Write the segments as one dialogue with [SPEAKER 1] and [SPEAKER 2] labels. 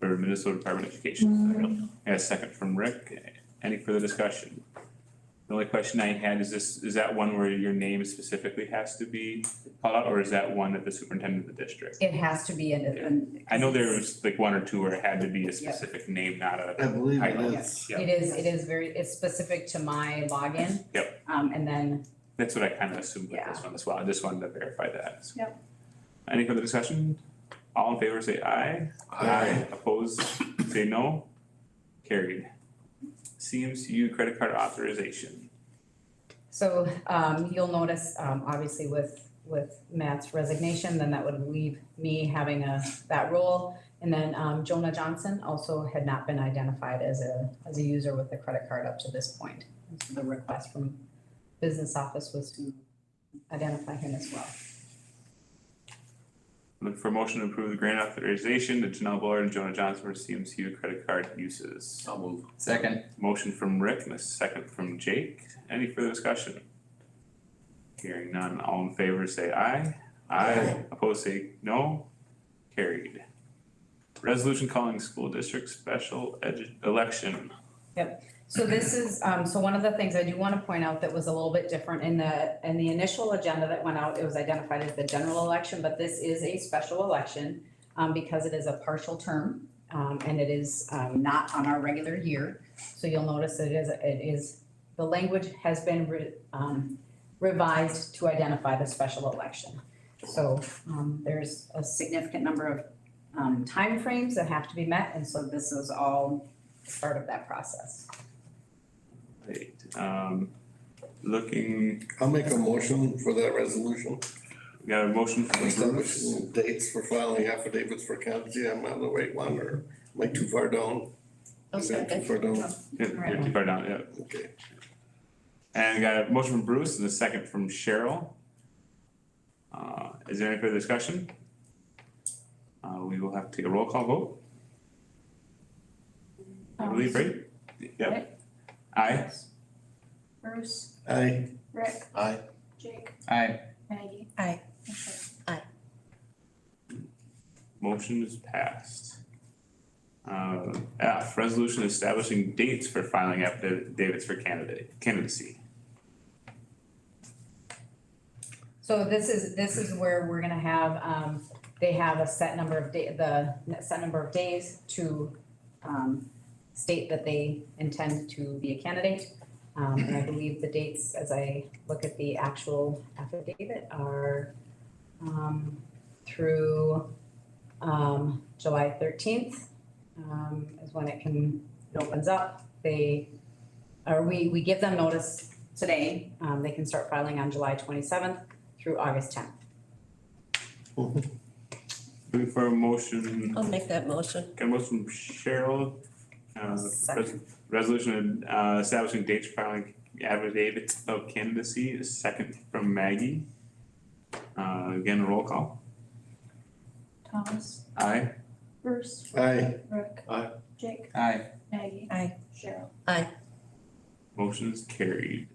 [SPEAKER 1] for Minnesota Department of Education. I got a second from Rick. Any further discussion? The only question I had is this, is that one where your name specifically has to be called out, or is that one that the superintendent of the district?
[SPEAKER 2] It has to be in, in.
[SPEAKER 1] I know there was like one or two where it had to be a specific name, not a,
[SPEAKER 3] I believe it
[SPEAKER 1] Title.
[SPEAKER 3] is.
[SPEAKER 1] yeah.
[SPEAKER 2] It is, it is very, it's specific to my login.
[SPEAKER 1] Yep.
[SPEAKER 2] Um, and then,
[SPEAKER 1] that's what I kind of assumed with this one as well. I just wanted to verify that.
[SPEAKER 2] Yep.
[SPEAKER 1] Any further discussion? All in favor, say aye. Aye. Opposed, say no. Carried. CMCU credit card authorization.
[SPEAKER 2] so, um, you'll notice, um, obviously with, with Matt's resignation, then that would leave me having a, that role. And then, um, Jonah Johnson also had not been identified as a, as a user with a credit card up to this point. And so The request from business office was to identify him as well.
[SPEAKER 1] Look for motion to approve the grant authorization to Janelle Bullard and Jonah Johnson for CMCU credit card uses.
[SPEAKER 4] I'll move.
[SPEAKER 5] Second,
[SPEAKER 1] Motion from Rick and a second from Jake. Any further discussion? Hearing none, all in favor say aye. Aye. Opposed say no. Carried. Resolution calling school district special edu- election.
[SPEAKER 2] So this is, um, so one of the things I do wanna point out that was a little bit different in the, in the initial agenda that went out, it was identified as the general election, but this is a special election. Um, because it is a partial term, um, and it is, um, not on our regular year. So you'll notice it is, it is, the language has been re- um, revised to identify the special election. So, um, there's a significant number of, um, timeframes that have to be met, and so this is all part of that process.
[SPEAKER 1] Right, um, looking,
[SPEAKER 3] I'll make a motion for that resolution.
[SPEAKER 1] we got a motion from
[SPEAKER 3] Establish
[SPEAKER 1] Bruce,
[SPEAKER 3] dates for filing affidavits for competency. I'm on the right one or am I too far down? Is that Too far down,
[SPEAKER 1] Yeah, you're too far down, yeah,
[SPEAKER 3] okay.
[SPEAKER 1] and we got a motion from Bruce and a second from Cheryl. Uh, is there any further discussion? Uh, we will have to take a roll call vote, I believe, right? Yep. Aye,
[SPEAKER 6] Bruce,
[SPEAKER 3] Aye,
[SPEAKER 6] Rick,
[SPEAKER 4] Aye.
[SPEAKER 6] Jake,
[SPEAKER 5] aye,
[SPEAKER 6] Maggie.
[SPEAKER 7] Aye.
[SPEAKER 6] Okay.
[SPEAKER 1] motion is passed. Uh, F, resolution establishing dates for filing affidavits for candidate, candidacy.
[SPEAKER 2] So this is, this is where we're gonna have, um, they have a set number of day, the set number of days to, um, state that they intend to be a candidate. Um, and I believe the dates, as I look at the actual affidavit, are, um, through, um, July thirteenth, um, is when it can, it opens up. They, or we, we give them notice today, um, they can start filing on July twenty-seventh through August tenth.
[SPEAKER 1] Looking for a motion
[SPEAKER 7] I'll make that motion.
[SPEAKER 1] Got a motion from Cheryl, uh, res-
[SPEAKER 2] Second.
[SPEAKER 1] resolution uh, establishing dates for filing affidavit of candidacy, a second from Maggie. Uh, again, roll call,
[SPEAKER 6] Thomas,
[SPEAKER 1] aye,
[SPEAKER 6] Bruce,
[SPEAKER 3] aye,
[SPEAKER 6] Rick.
[SPEAKER 4] Aye.
[SPEAKER 6] Jake,
[SPEAKER 5] aye.
[SPEAKER 6] Maggie.
[SPEAKER 7] Aye.
[SPEAKER 6] Cheryl.
[SPEAKER 1] motion is carried.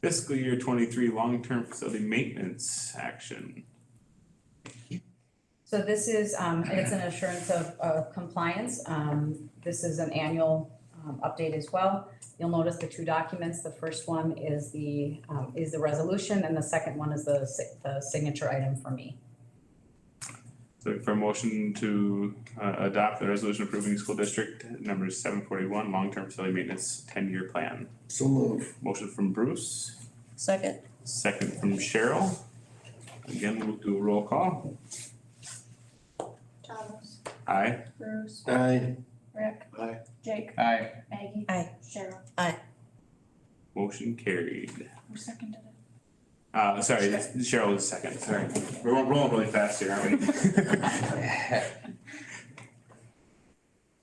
[SPEAKER 1] Fiscal year twenty-three, long-term facility maintenance action,
[SPEAKER 2] So this is, um, it's an assurance of, of compliance, um, this is an annual, um, update as well. You'll notice the two documents, the first one is the, um, is the resolution, and the second one is the si- the signature item for me.
[SPEAKER 1] looking for a motion to uh, adopt the resolution approving school district number seven forty-one, long-term facility maintenance ten-year plan.
[SPEAKER 3] so move.
[SPEAKER 1] Motion from Bruce,
[SPEAKER 7] Second,
[SPEAKER 1] Second from Cheryl. Again, we'll do a roll call.
[SPEAKER 6] Thomas,
[SPEAKER 1] Aye.
[SPEAKER 6] Bruce,
[SPEAKER 3] Aye,
[SPEAKER 6] Rick.
[SPEAKER 4] Aye.
[SPEAKER 6] Jake,
[SPEAKER 5] Aye,
[SPEAKER 6] Maggie.
[SPEAKER 7] Aye.
[SPEAKER 6] Cheryl.
[SPEAKER 1] Motion carried.
[SPEAKER 6] Who seconded it?
[SPEAKER 1] Uh, sorry, that's- Cheryl was second, sorry. We're ro- rolling really fast here, aren't we?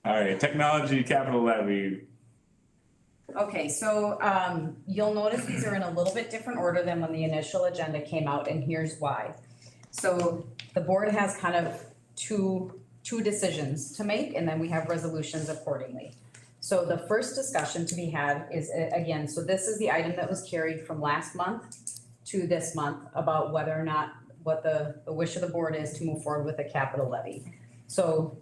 [SPEAKER 1] All right, technology capital levy.
[SPEAKER 2] Okay, so um you'll notice these are in a little bit different order than when the initial agenda came out and here's why. So the board has kind of two two decisions to make and then we have resolutions accordingly. So the first discussion to be had is uh, again, so this is the item that was carried from last month to this month about whether or not what the the wish of the board is to move forward with a capital levy. So